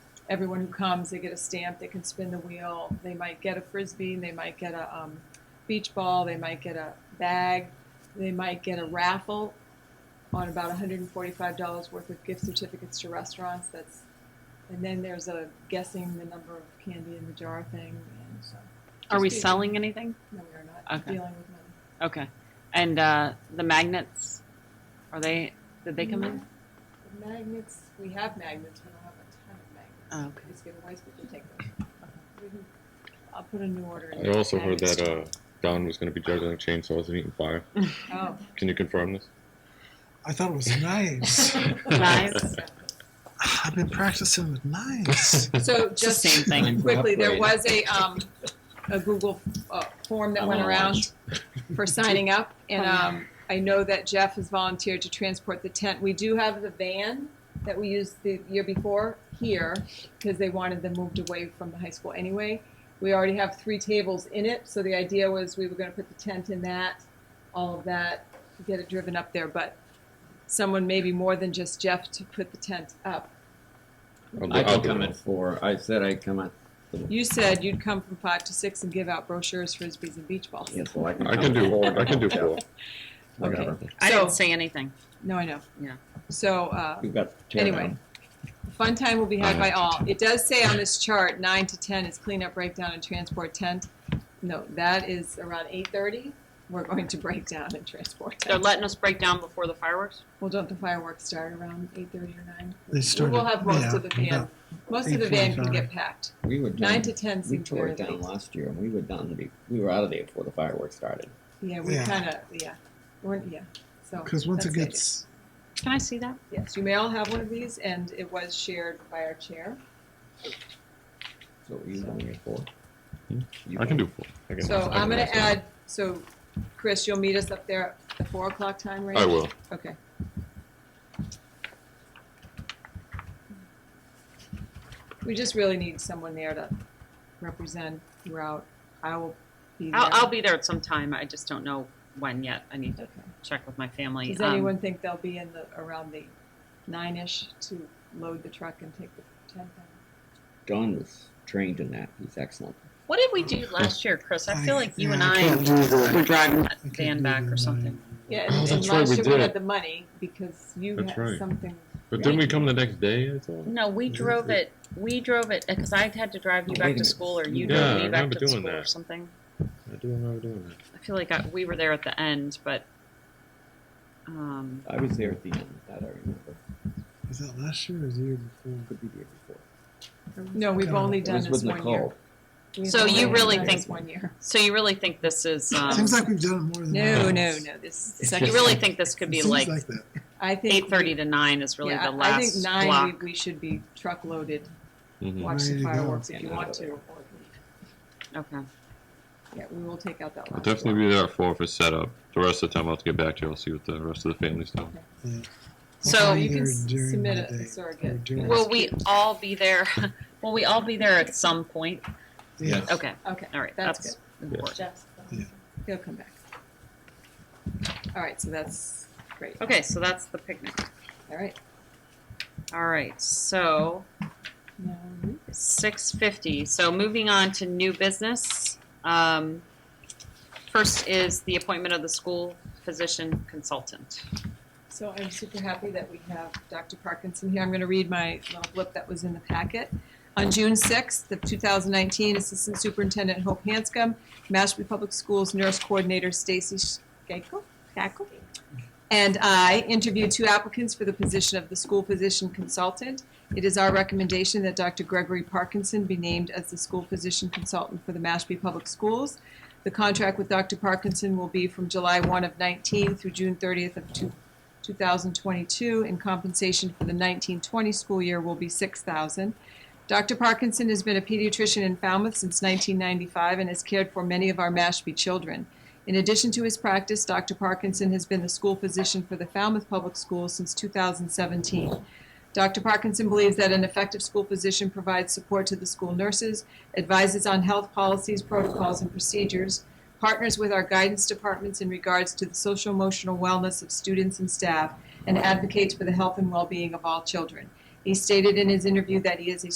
everyone who comes, they get a stamp, they can spin the wheel, they might get a frisbee, they might get a um, beach ball, they might get a bag, they might get a raffle on about $145 worth of gift certificates to restaurants. That's and then there's a guessing the number of candy in the jar thing. And so, Are we Just- selling anything? no, we are not Okay. dealing with money. Okay. And uh, the magnets, are they, did they come in? The magnets, we have magnets, we don't have a ton of magnets. Oh, okay. These giveaways, we can take them. We can- I'll put a new order in. I also heard Magnets. that uh, Don was going to be juggling chainsaws and eating fire. Oh. Can you confirm this? I thought it was knives. Knives. I've been practicing with knives. So Just same just thing. quickly, there Upgrade. was a, um, a Google, uh, form that I'm went gonna around for signing up. And, Oh, yeah. um, I know that Jeff has volunteered to transport the tent. We do have the van that we used the year before here because they wanted them moved away from the high school anyway. We already have three tables in it, so the idea was we were going to put the tent in that, all of that, get it driven up there. But someone, maybe more than just Jeff, to put the tent up. I'll, I I'll can do come it. at four. I said I'd come at. You said you'd come from five to six and give out brochures, frisbees, and beach balls. Yes, well, I can. I can come at do. four. I can do four. Whatever. I So- didn't say anything. No, I know. Yeah. So uh, You've got. to tear Anyway. down. Fun time will be had I by have all. It does say on this chart, nine to ten is cleanup, breakdown, and transport tent. No, that is around eight thirty. We're going to break down and transport They're tent. letting us break down before the fireworks? Well, don't the fireworks start around eight thirty or nine? They started. We'll have most yeah, of the van. about- Most of the van can 8:45. get packed. We were down. Nine to ten We seems tore very it down late. last year, and we were down. be- We were out of there before the fireworks started. Yeah, we Yeah. kind of yeah, we're yeah. So Because once it that's the idea. gets, Can I see that? yes, you may all have one of these, and it was shared by our chair. So what were you doing at four? Hmm. You- I can do four. I can, I So can I'm gonna ask them. add, so Chris, you'll meet us up there at the four o'clock time range? I will. Okay. We just really need someone there to represent throughout. I will be there. I'll, I'll be there at some time. I just don't know when yet. I need to Okay. check with my family. Does Um, anyone think they'll be in the, around the nine-ish to load the truck and take the tent down? Don was trained in that. He's excellent. What did we do last year, Chris? I feel like you and yeah, can't I do the- were driving that I can't van do back the or something. Yeah, Oh, and- and that's right, last we year did we had it. the money because you That's had right. something. But didn't we come the next day? I thought. No, we drove it. We drove it because I had to drive you Wait a back to minute. school, or you Yeah, I drove me back remember to the doing school or that. something. I do remember doing that. I feel like I, we were there at the end, but um, I was there at the end. That I remember. Was that last year or the year before? Could be there before. No, we've Uh, only It done was this with one year. Nicole. We've So only you really done think- this one year? so you really think this is? Um, Seems like we've done it more than No, once. no, no. This is you second. really think this could It be seems like, that. I think eight thirty to nine is really yeah, the I- last I think nine. block. We, we should be truckloaded. Mhm. Mm-hmm. Watch Ready the to go. fireworks if Yeah, you no. want to. or- Okay. Yeah, we will take out that I'll last. definitely block. be there at four for setup. The rest of the time, I'll have to get back to you. I'll see what the rest of the family's doing. So We're you can there s- during submit the a- a day. surrogate. We're doing- Will we all be there? Will we all be there at some point? Yeah. Okay. Okay, All right. That's That's, important. Jeff's done. Yeah. He'll come back. All right, so that's great. Okay. So that's the picnic. All right. All right. So Now, Six fifty. So moving on to new business. Um, first is the appointment of the school physician consultant. So I'm super happy that we have Dr. Parkinson here. I'm going to read my little blip that was in the packet. On June 6th of 2019, Assistant Superintendent Hope Hanscom, Mashpee Public Schools Nurse Coordinator Stacy Skakel, Skakel, and I interviewed two applicants for the position of the school physician consultant. It is our recommendation that Dr. Gregory Parkinson be named as the school physician consultant for the Mashpee Public Schools. The contract with Dr. Parkinson will be from July 1 of 19 through June 30th of 2. 2022, and compensation for the 1920 school year will be 6000 Dr. Parkinson has been a pediatrician in Falmouth since 1995 and has cared for many of our Mashpee children. In addition to his practice, Dr. Parkinson has been the school physician for the Falmouth Public Schools since 2017. Dr. Parkinson believes that an effective school physician provides support to the school nurses, advises on health policies, protocols, and procedures, partners with our guidance departments in regards to the social emotional wellness of students and staff, and advocates for the health and well being of all children. He stated in his interview that he is a